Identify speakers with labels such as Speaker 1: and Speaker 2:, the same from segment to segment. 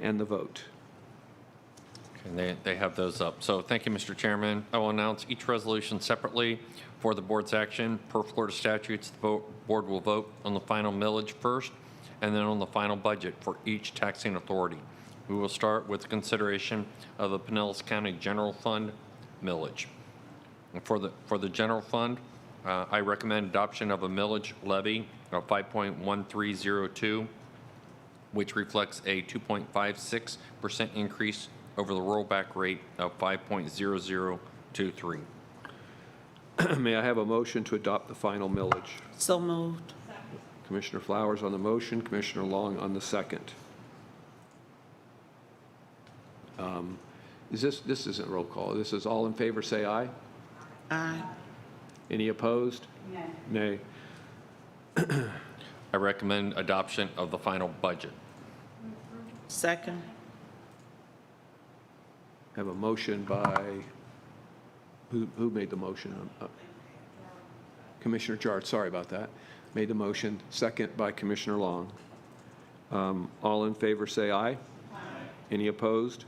Speaker 1: and the vote.
Speaker 2: And they, they have those up. So thank you, Mr. Chairman. I will announce each resolution separately for the board's action. Per Florida statutes, the vo- board will vote on the final millage first and then on the final budget for each taxing authority. We will start with consideration of the Pinellas County General Fund millage. And For the, for the general fund, uh, I recommend adoption of a millage levy of 5.1302 which reflects a 2.56% increase over the rollback rate of 5.0023.
Speaker 1: May I have a motion to adopt the final millage?
Speaker 3: So moved.
Speaker 1: Commissioner Flowers on the motion, Commissioner Long on the second. Um, Is this, this isn't roll call, this is all in favor, say aye.
Speaker 3: Aye.
Speaker 1: Any opposed? Nay.
Speaker 2: I recommend adoption of the final budget.
Speaker 3: Second.
Speaker 1: Have a motion by, who, who made the motion? Um, uh, Commissioner Jarrett, sorry about that, made the motion, second by Commissioner Long. Um, All in favor, say aye. Any opposed?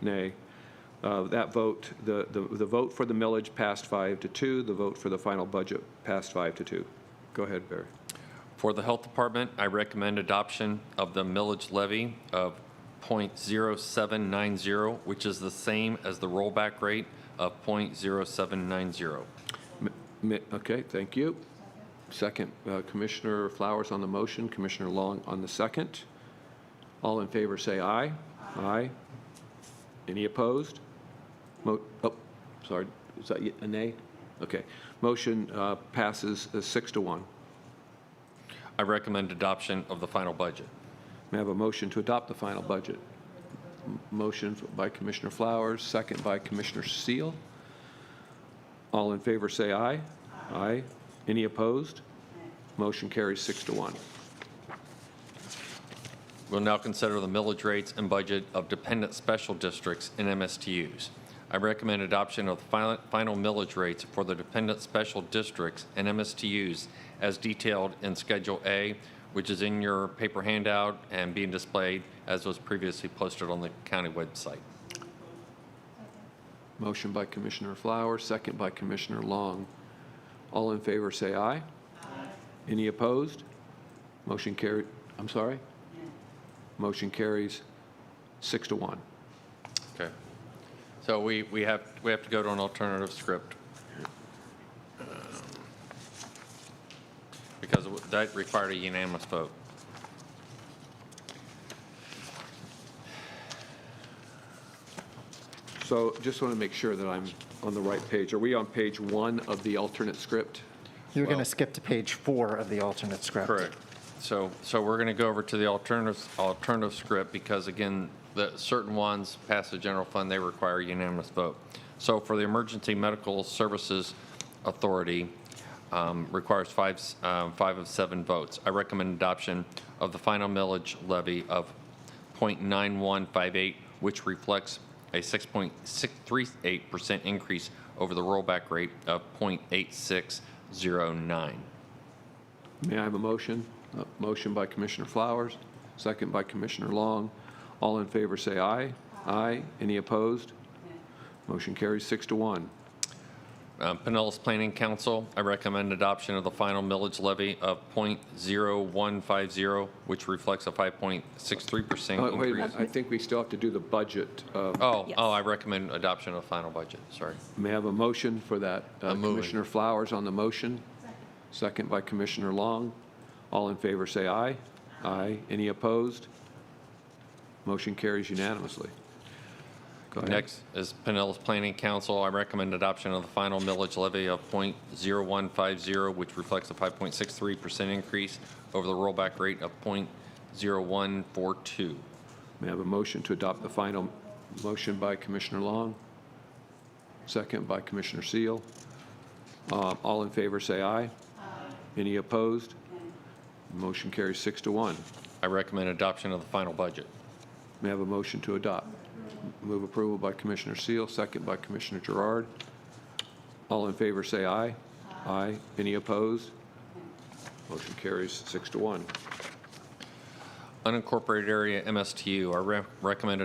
Speaker 1: Nay. Uh, That vote, the, the the vote for the millage passed five to two, the vote for the final budget passed five to two. Go ahead, Barry.
Speaker 2: For the Health Department, I recommend adoption of the millage levy of .0790, which is the same as the rollback rate of .0790.
Speaker 1: M- mi- Okay, thank you. Second, uh, Commissioner Flowers on the motion, Commissioner Long on the second. All in favor, say aye. Aye. Any opposed? Mo- Oh, sorry, is that y- a nay? Okay. Motion uh, passes uh, six to one.
Speaker 2: I recommend adoption of the final budget.
Speaker 1: May I have a motion to adopt the final budget? M- Motion by Commissioner Flowers, second by Commissioner Seal. All in favor, say aye. Aye. Any opposed? Motion carries six to one.
Speaker 2: We'll now consider the millage rates and budget of dependent special districts and MSTUs. I recommend adoption of the final- final millage rates for the dependent special districts and MSTUs as detailed in Schedule A, which is in your paper handout and being displayed as was previously posted on the county website.
Speaker 1: Motion by Commissioner Flowers, second by Commissioner Long. All in favor, say aye. Aye. Any opposed? Motion carried, I'm sorry? Motion carries six to one.
Speaker 2: Okay. So we, we have, we have to go to an alternative script. Um, Because that required a unanimous vote.
Speaker 1: So just want to make sure that I'm on the right page. Are we on page one of the alternate script?
Speaker 4: You're going to skip to page four of the alternate script.
Speaker 2: Correct. So, so we're going to go over to the alternative, alternative script because again, the certain ones pass the general fund, they require unanimous vote. So for the Emergency Medical Services Authority, um, requires five, s- um, five of seven votes. I recommend adoption of the final millage levy of .9158, which reflects a 6.638% increase over the rollback rate of .8609.
Speaker 1: May I have a motion? A motion by Commissioner Flowers, second by Commissioner Long. All in favor, say aye. Aye. Any opposed? Motion carries six to one.
Speaker 2: Uh, Pinellas Planning Council, I recommend adoption of the final millage levy of .0150, which reflects a 5.63%
Speaker 1: Oh, Wait a
Speaker 2: increase.
Speaker 1: minute, I think we still have to do the budget. uh,
Speaker 2: Oh,
Speaker 3: Yes.
Speaker 2: oh, I recommend adoption of the final budget, sorry.
Speaker 1: May I have a motion for that? Uh,
Speaker 2: I'm moving.
Speaker 1: Commissioner Flowers on the motion, second by Commissioner Long. All in favor, say aye. Aye. Any opposed? Motion carries unanimously. Go ahead.
Speaker 2: Next is Pinellas Planning Council, I recommend adoption of the final millage levy of .0150, which reflects a 5.63% increase over the rollback rate of .0142.
Speaker 1: May I have a motion to adopt the final motion by Commissioner Long? Second by Commissioner Seal. Uh, All in favor, say aye. Aye. Any opposed? Motion carries six to one.
Speaker 2: I recommend adoption of the final budget.
Speaker 1: May I have a motion to adopt? Move approval by Commissioner Seal, second by Commissioner Gerard. All in favor, say aye. Aye. Any opposed? Motion carries six to one.
Speaker 2: unincorporated area MSTU. Our re- recommended